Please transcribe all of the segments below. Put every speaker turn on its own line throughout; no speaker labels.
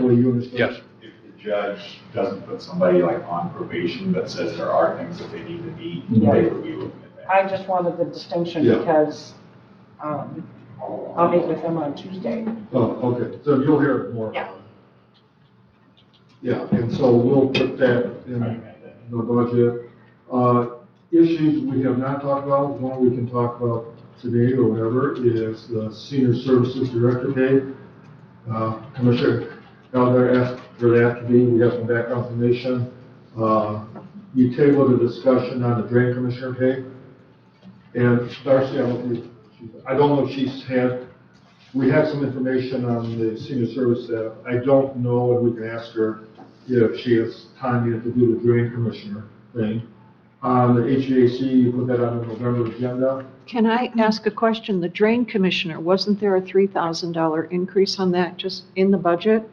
way you understand?
Yes,
If the judge doesn't put somebody like on probation, but says there are things that they need to meet, they would be looking at that.
I just wanted the distinction
Yeah.
because, um, I'll meet with him on Tuesday.
Oh, okay, so you'll hear more.
Yeah.
Yeah, and so we'll put that in the budget. Uh, Issues we have not talked about, one we can talk about today or whatever, is the senior services director pay. Uh, Commissioner Gallagher asked for that to be, we have some background information. Uh, You tabled a discussion on the drain commissioner pay. And Darcy, I don't think, she- I don't know if she's had, we have some information on the senior service staff. I don't know, and we can ask her if she has time yet to do the drain commissioner thing. On the HVAC, you put that on the November agenda.
Can I ask a question? The drain commissioner, wasn't there a $3,000 increase on that just in the budget?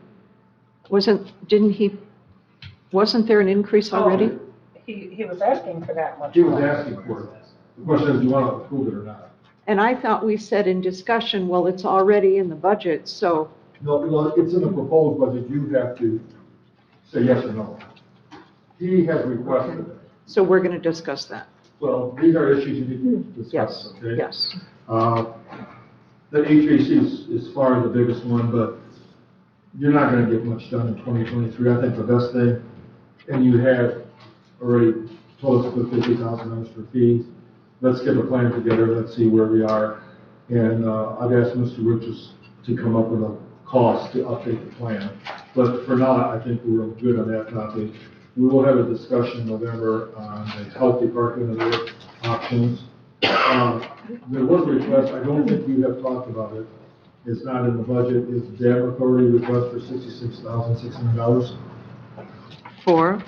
Wasn't, didn't he, wasn't there an increase
Oh.
already?
He, he was asking for that much.
He was asking for it. The question is, do you want to approve it or not?
And I thought we said in discussion, well, it's already in the budget, so,
No, well, it's in the proposed budget, you have to say yes or no. He has requested it.
so we're going to discuss that.
Well, these are issues you need to discuss,
Mm-hmm. Yes,
okay?
yes.
Uh, The HVAC is, is far the biggest one, but you're not gonna get much done in 2023. I think the best thing, and you have already told us the $50,000 for fees. Let's get a plan together, let's see where we are. And uh, I've asked Mr. Richards to come up with a cost to update the plan. But for now, I think we're good on that topic. We will have a discussion in November on the health department and their options. Uh, There was a request, I don't think you have talked about it, it's not in the budget, is dam authority request for sixty-six thousand, six hundred dollars
Four,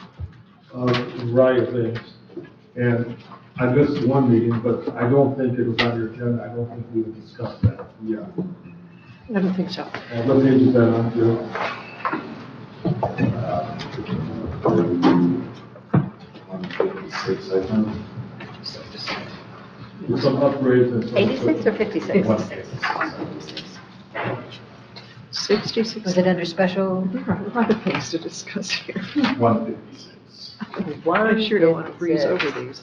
of a variety of things. And I missed one meeting, but I don't think it was on your agenda, I don't think we would discuss that. Uh, Yeah.
I don't think so.
And what page is that on, Joe?
One fifty-six, I think.
With some upgrades and some.
86 or 56?
One.
Was
66
it under special?
a lot of things to discuss here.
One fifty-six.
I sure don't want to breeze over these.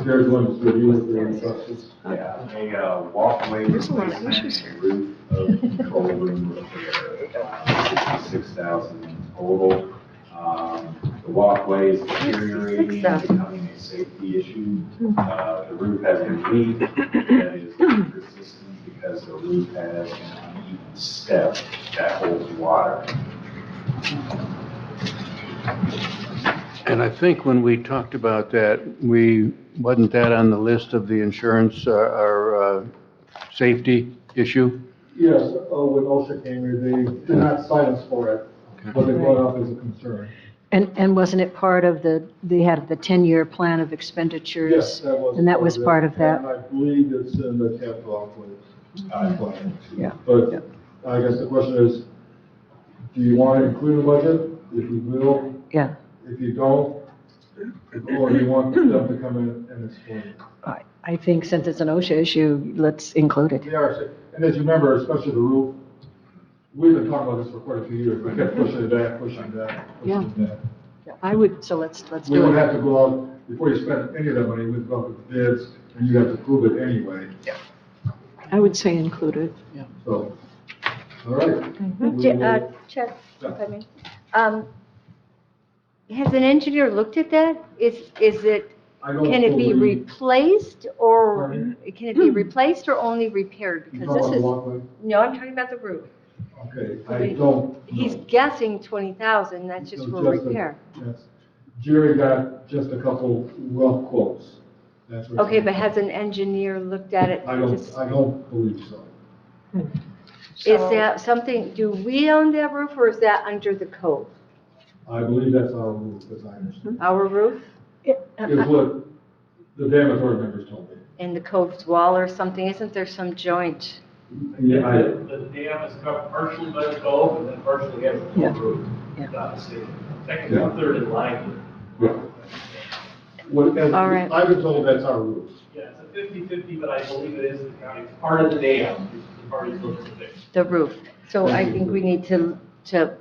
There's one that's reviewed with the requests.
Yeah, a uh, walkway
There's a lot of issues
replacement
here.
and roof of control room repair, sixty-six thousand total. Um, The walkway is deteriorating,
66,000.
becoming a safety issue. Uh, The roof has a leak that is persistent because the roof has an uneven step that holds water.
and I think when we talked about that, we, wasn't that on the list of the insurance uh, or uh, safety issue?
Yes, uh, when OSHA came here, they did not cite us for it, but they brought it up as a concern.
And, and wasn't it part of the, they had the 10-year plan of expenditures?
Yes, that was.
And that was part of that?
And I believe it's in the capital outlay, uh, plan.
Yeah.
But I guess the question is, do you want to include a budget? If you will,
Yeah.
if you don't, or do you want them to come in and explain? it?
I I think since it's an OSHA issue, let's include it.
They are, sick. and as you remember, especially the roof, we've been talking about this for quite a few years, we kept pushing it back, pushing it back, pushing it back.
I would, so let's, let's
We
do
would
it.
have to go out, before you spend any of that money, we'd go out with bids, and you have to prove it anyway,
I would say included.
so, all right. We
J- uh,
will-
Chuck, if I may. Um, Has an engineer looked at that? Is, is it,
I don't
can it be
believe-
replaced or,
Pardon?
can it be replaced or only repaired?
You
Because
know,
this
I'm
is,
walking-
no, I'm talking about the roof.
Okay, I don't.
He's
know.
guessing 20,000, that's just
So
for
a-
repair.
yes. Jerry got just a couple rough quotes. That's what-
Okay, but has an engineer looked at it?
I don't,
Is
I don't believe so.
So-
that something, do we own that roof or is that under the code?
I believe that's our rule, as
Mm-hmm.
I understand.
Our roof Uh,
Is what the damage board members told me.
and the cove's wall or something? Isn't there some joint?
Yeah, I,
The dam is covered partially by the cove and then partially has the
Yeah.
whole roof.
Yeah.
Obviously,
Yeah.
technically third in line.
yeah. What, as,
All right.
I've been told that's our rule.
Yeah, it's a fifty-fifty, but I believe it is the county, part of the dam, the party looking to fix.
The roof. So I think we need to to